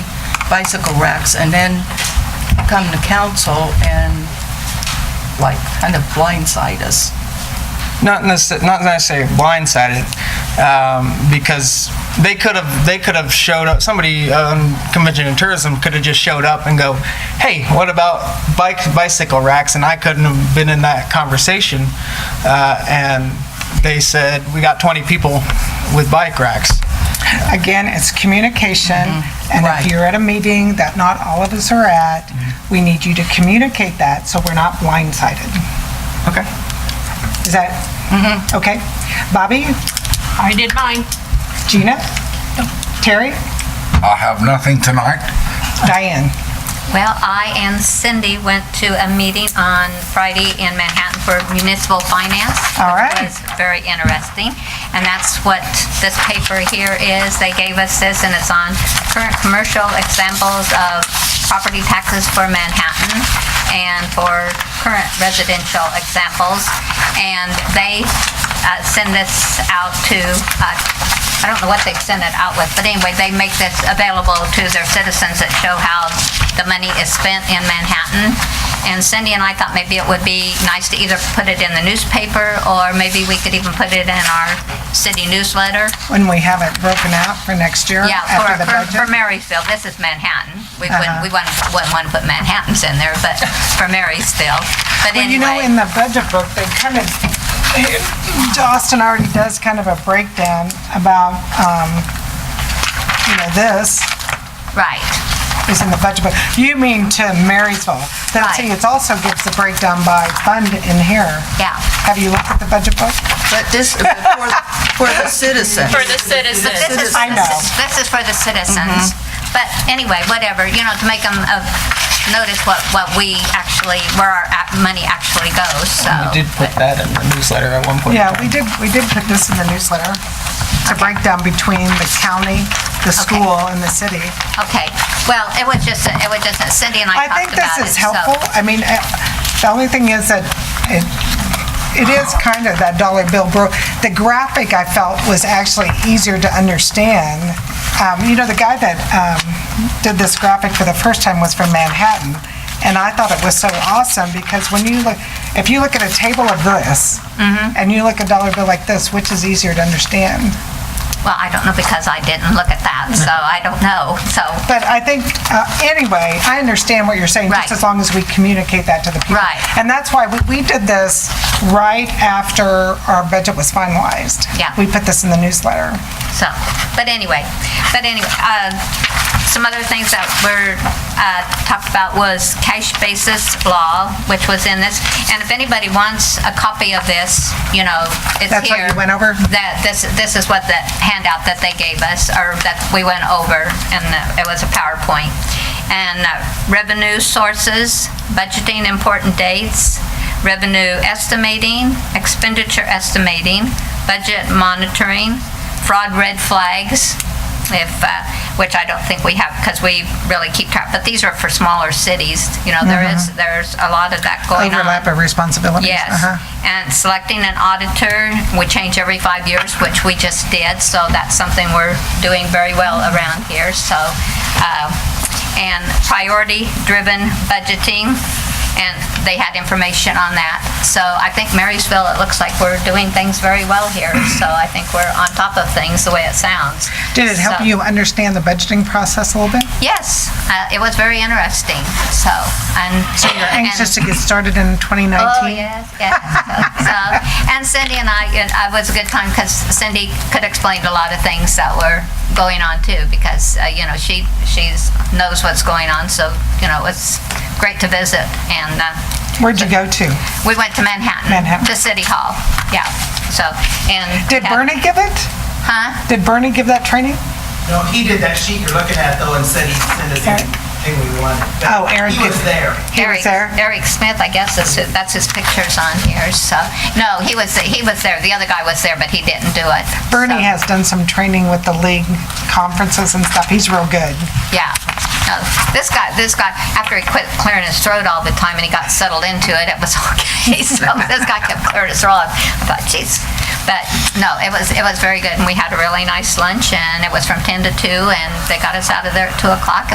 bicycle racks, and then come to council and like kind of blindside us. not necessarily, not necessarily blindsided, um, because they could have they could have showed up. Somebody um, convention and tourism could have just showed up and go, "Hey, what about bike bicycle racks?" And I couldn't have been in that conversation. Uh, and they said, "We got 20 people with bike racks." Again, it's communication, Mm-hmm. and Right. if you're at a meeting that not all of us are at, Mm-hmm. we need you to communicate that, so we're not blindsided. Okay. Is that, Mm-hmm. okay? Bobby, I did mine. Gina, Terry, I have nothing tonight. Diane? Well, I and Cindy went to a meeting on Friday in Manhattan for municipal finance. All right. Which was very interesting, and that's what this paper here is. They gave us this, and it's on current commercial examples of property taxes for Manhattan and for current residential examples. And they uh, send this out to, uh, I don't know what they send it out with, but anyway, they make this available to their citizens that show how the money is spent in Manhattan. And Cindy and I thought maybe it would be nice to either put it in the newspaper, or maybe we could even put it in our city newsletter. When we have it broken out for next year Yeah, for, after the for- for budget? Uh-huh. Marysville, this is Manhattan. We wouldn't, we wouldn't, wouldn't want to put Manhattans in there, but for Marysville. But Well, you know, anyway, in the budget book, they kind of, Austin already does kind of a breakdown about, um, you know, this, right, is in the budget book. You mean to Marysville. That, see, Right. it also gives the breakdown by fund in here. yeah. Have you looked at the budget book? But this, for for the citizen. For the citizens. This is, I know. Mm-hmm. this is- this is for the citizens. But anyway, whatever, you know, to make them uh, notice what, what we actually, where our ac- money actually goes, so. We did put that in the newsletter at one point. in Yeah, time. we did, we did put this in the newsletter. It's a breakdown between the county, the school, and the city. Okay, well, it was just, it was just, Cindy and I I think this talked about it, is so. helpful. I mean, uh, the only thing is that it, it is kind of that dollar bill bro. The graphic I felt was actually easier to understand. Um, You know, the guy that um, did this graphic for the first time was from Manhattan, and I thought it was so awesome because when you look, if you look at a table of this, Mm-hmm. and you look at a dollar bill like this, which is easier to understand? Well, I don't know because I didn't look at that, so I don't know, so, But I think, uh, anyway, I understand what you're saying, just Right. as long as we communicate that to the people. Right. And that's why we- we did this right after our budget was finalized. Yeah. We put this in the newsletter. so. But anyway, but anyway, uh, some other things that were uh, talked about was cash basis law, which was in this. And if anybody wants a copy of this, you know, it's That's what here. you went over? That, this, this is what the handout that they gave us, or that we went over, and uh, it was a PowerPoint. And uh, revenue sources, budgeting important dates, revenue estimating, expenditure estimating, budget monitoring, fraud red flags, if, uh, which I don't think we have, because we really keep track, but these are for smaller cities, you know, there is, there's a lot of that going on. Overlap of responsibilities. Yes. Uh-huh. And selecting an auditor, we change every five years, which we just did, so that's something we're doing very well around here, so. uh, And priority-driven budgeting, and they had information on that. So I think Marysville, it looks like we're doing things very well here, so I think we're on top of things the way it sounds. Did it help So- you understand the budgeting process a little bit? Yes, uh, it was very interesting, so. So You're anxious to get started in 2019? Oh, yes, yes. So- So, and Cindy and I, and it uh, was a good time because Cindy could explain a lot of things that were going on too, because, uh, you know, she, she's, knows what's going on, so, you know, it's great to visit. And uh, Where'd you go to? we went to Manhattan. Manhattan. To City Hall, yeah, so, and. Did Bernie give it? Huh? Did Bernie give that training? No, he did that sheet you're looking at though and said he'd send us anything we wanted. But Oh, Aaron He was did. there. He was Eric- there? Eric Smith, I guess, is who- that's his pictures on here, so, no, he was, he was there, the other guy was there, but he didn't do it. so- Bernie has done some training with the league conferences and stuff. He's real good. Yeah. No, this guy, this guy, after he quit clearing his throat all the time and he got settled into it, it was okay. So this guy kept clearing his throat. I thought, jeez. But no, it was it was very good, and we had a really nice lunch, and it was from ten to two, and they got us out of there at two o'clock,